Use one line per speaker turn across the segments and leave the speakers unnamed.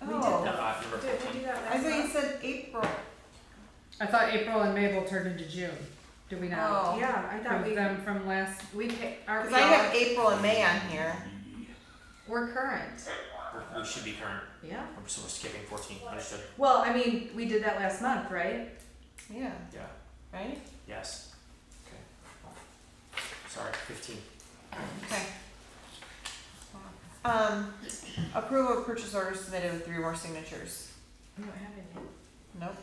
Oh. April,
I thought April and Mabel turned into June. Did we not?
Oh.
Yeah, I thought
With
we,
them from last,
we, pick- our,
because I have April and May on here.
we're current,
We should be current.
yeah.
I'm just we're skipping 14. Understood.
Well, I mean, we did that last month, right?
Yeah,
Yeah.
right?
Yes. Okay. Sorry. 15.
Okay. Um, approval of purchase order submitted with three more signatures.
We don't have any.
Nope.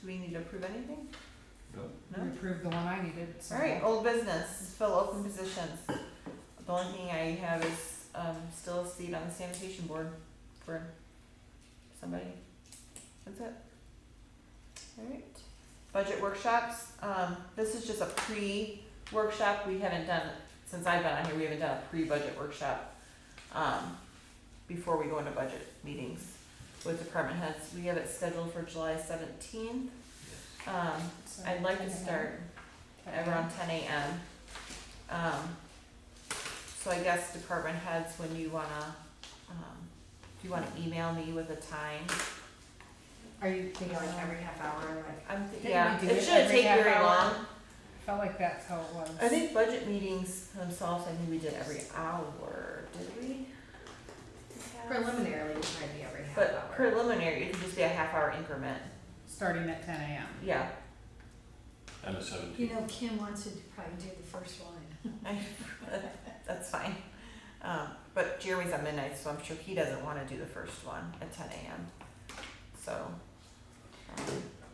Do we need to approve anything?
we
No.
approved the one I needed, so.
Alright, old business, fill open positions. The only thing I have is, um, still a seat on the sanitation board for somebody. That's it. Alright, budget workshops, um, this is just a pre-workshop, we haven't done, since I've been on here, we haven't done a pre-budget workshop. Um, before we go into budget meetings with department heads, we have it scheduled for July seventeenth. Um,
So,
I'd like to
okay.
start at around ten AM. Um, so I guess department heads, when you wanna, um, do you wanna email me with a time?
Are you
Thinking
thinking like
like
every,
every half hour, like,
I'm, th-
Didn't
yeah,
we do
it
it
shouldn't
every
take
half
very
hour?
long.
felt like that's how it was.
I think budget meetings themselves, I think we did every hour, did we?
preliminarily, it might be every half hour.
But preliminary, it could just be a half hour increment,
Starting at ten AM.
yeah.
And a seventeen.
You know, Kim wants to probably do the first line.
That's fine. Um, but Jeremy's at midnight, so I'm sure he doesn't wanna do the first one at ten AM, so. um,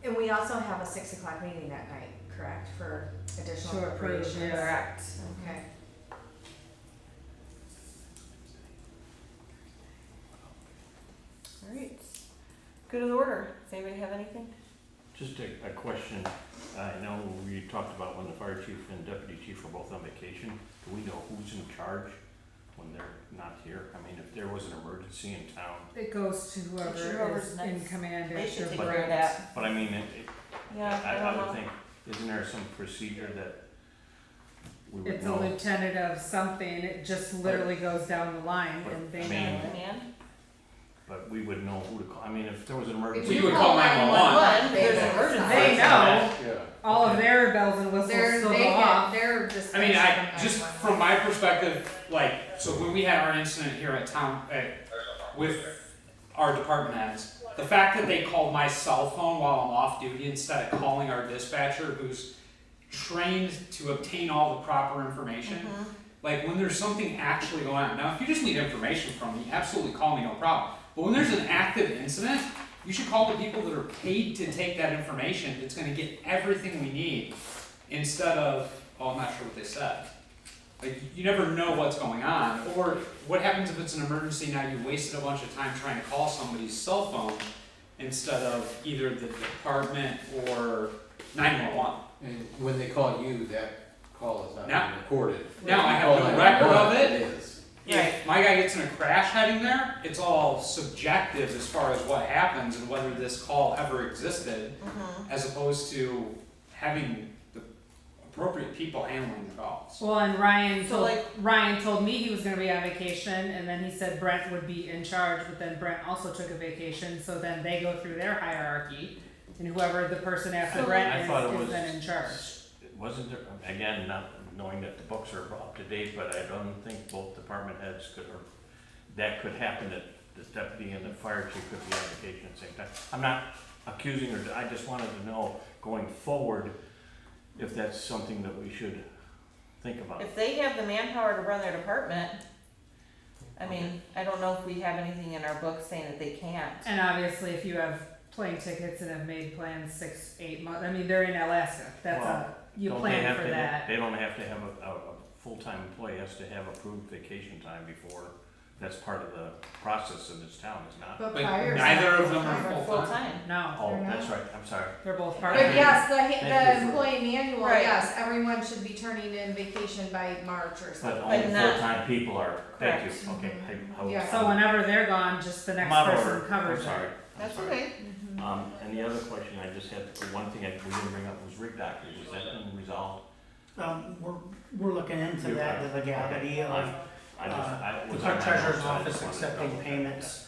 And we also have a six o'clock meeting that night, correct, for additional
To approve,
appropriations?
yes.
Correct.
Okay.
Alright, good of the order, does anybody have anything?
Just a, a question, I know we talked about when the fire chief and deputy chief are both on vacation, do we know who's in charge when they're not here? I mean, if there was an emergency in town,
It goes to whoever
whoever's
is in
next.
command
They
after
should take
Brett.
care of that,
but I mean, it, it,
yeah,
I,
I
I
don't
would
know,
think, isn't there some procedure that we would
It's a
know?
lieutenant of something, it just literally goes down the line and they
I
know
mean-
it.
man,
But we would know who to call, I mean, if there was an emergency.
We would call 911.
One, there's an emergency.
They know,
Yeah.
all of their bells and whistles
They're,
still
they
go
get,
off.
they're just.
I mean, I just from my perspective, like so when we had our incident here at town at, with our department heads, the fact that they called my cell phone while I'm off duty instead of calling our dispatcher, who's trained to obtain all the proper information. Like when there's something actually going on. Now, if you just need information from me, absolutely call me, no problem. But when there's an active incident, you should call the people that are paid to take that information. That's going to get everything we need instead of, oh, I'm not sure what they said. Like you never know what's going on. Or what happens if it's an emergency? Now you wasted a bunch of time trying to call somebody's cell phone instead of either the department or 911.
And when they call you, that call is not
Now-
being recorded.
now I have
Call
no
that
record of
one,
it.
It is.
if my guy gets in a crash heading there, it's all subjective as far as what happens and whether this call ever existed, as opposed to having the appropriate people handling the calls.
Well, and Ryan
So,
told
like-
Ryan told me he was going to be on vacation, and then he said Brent would be in charge. But then Brent also took a vacation, so then they go through their hierarchy, and whoever the person after
So-
Brent
I
is,
thought it
is
was-
then in charge.
Wasn't there, again, not knowing that the books are up to date, but I don't think both department heads could, or that could happen, that the deputy and the fire chief could be on vacation at the same time. I'm not accusing or, I just wanted to know, going forward, if that's something that we should think about.
if they have the manpower to run their department, I mean, I don't know if we have anything in our book saying that they can't.
And obviously, if you have plane tickets and have made plans six, eight months, I mean, they're in Alaska. That's
Well,
a you
Don't they
plan
have
for
to-
that.
They don't have to have a, a, a full-time employee has to have approved vacation time before, that's part of the process in this town, is not?
But
But
prior.
neither of them are
Or
full time.
Full-time,
No,
Oh,
They're not?
that's right, I'm sorry.
they're both part of
But
it.
yes, the,
Thank
the
you for-
employee manual,
Right.
yes, everyone should be turning in vacation by March or
But
something.
only
not-
full-time people are, thank you,
Correct.
okay. I- I was-
Yeah,
So whenever they're gone, just the next
I'm out of
person
order.
covers
I'm
it.
sorry. I'm
that's
sorry.
okay.
Um, and the other question I just had, one thing I, we didn't bring up was rig doctors, is that been resolved?
Um, we're, we're looking into
You
that,
are.
the legality
Okay.
of,
I just, I
uh,
was.
the
on my
clerk treasurer's
notes, I just
office
wanted to
accepting
double check
payments